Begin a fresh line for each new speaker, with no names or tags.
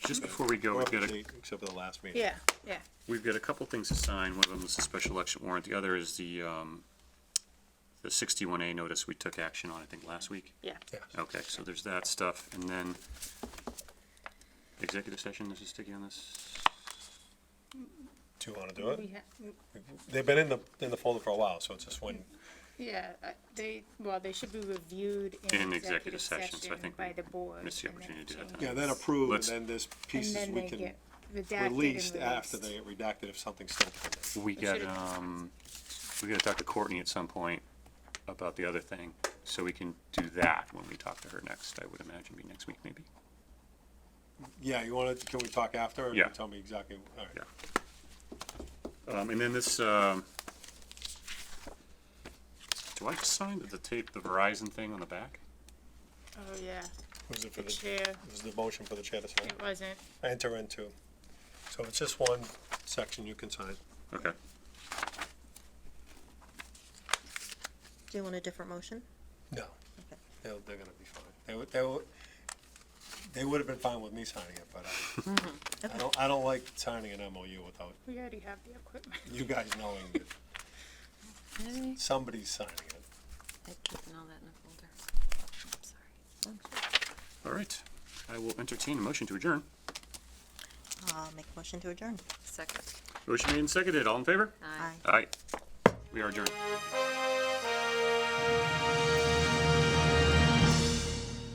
Just before we go, we've got a,
Except for the last meeting.
Yeah, yeah.
we've got a couple things to sign. One of them is the special election warrant. The other is the, um, the sixty-one A notice we took action on, I think, last week.
Yeah.
Okay, so there's that stuff. And then executive session, this is sticky on this.
Do you wanna do it?
We ha-
They've been in the, in the folder for a while, so it's just when,
Yeah, uh, they, well, they should be reviewed
In
in
executive
executive
session, so I
session
think we
by the board.
missed the
and then
opportunity to do that
changed.
tonight.
yeah, then approve, and
Let's-
then there's
And
pieces
then
we
they
can
get redacted and
release after
released.
they get redacted if something's still. pending.
We got,
should've-
um, we gotta talk to Courtney at some point about the other thing, so we can do that when we talk to her next, I would imagine, be next week maybe.
Yeah, you wanna, can we talk after? or
Yeah.
Tell me exactly, alright.
Yeah. Um, and then this, um, do I just sign the tape, the Verizon thing on the back?
Oh, yeah,
Was it for
the
the,
chair,
was the motion for the chair to sign?
it wasn't,
Enter into. So it's just one section you can sign.
Okay.
Do you want a different motion?
No. They're, they're gonna be fine. They would, they would, they would have been fine with me signing it, but
Mm-hmm.
I, I don't, I don't like signing an MOU without
we already have the equipment.
you guys knowing that
I
somebody's signing it.
keeping all that in a folder. I'm sorry.
All right. I will entertain a motion to adjourn.
I'll make a motion to adjourn. Second.
Motion made and seconded. All in favor?
Aye.
Aye. We are adjourned.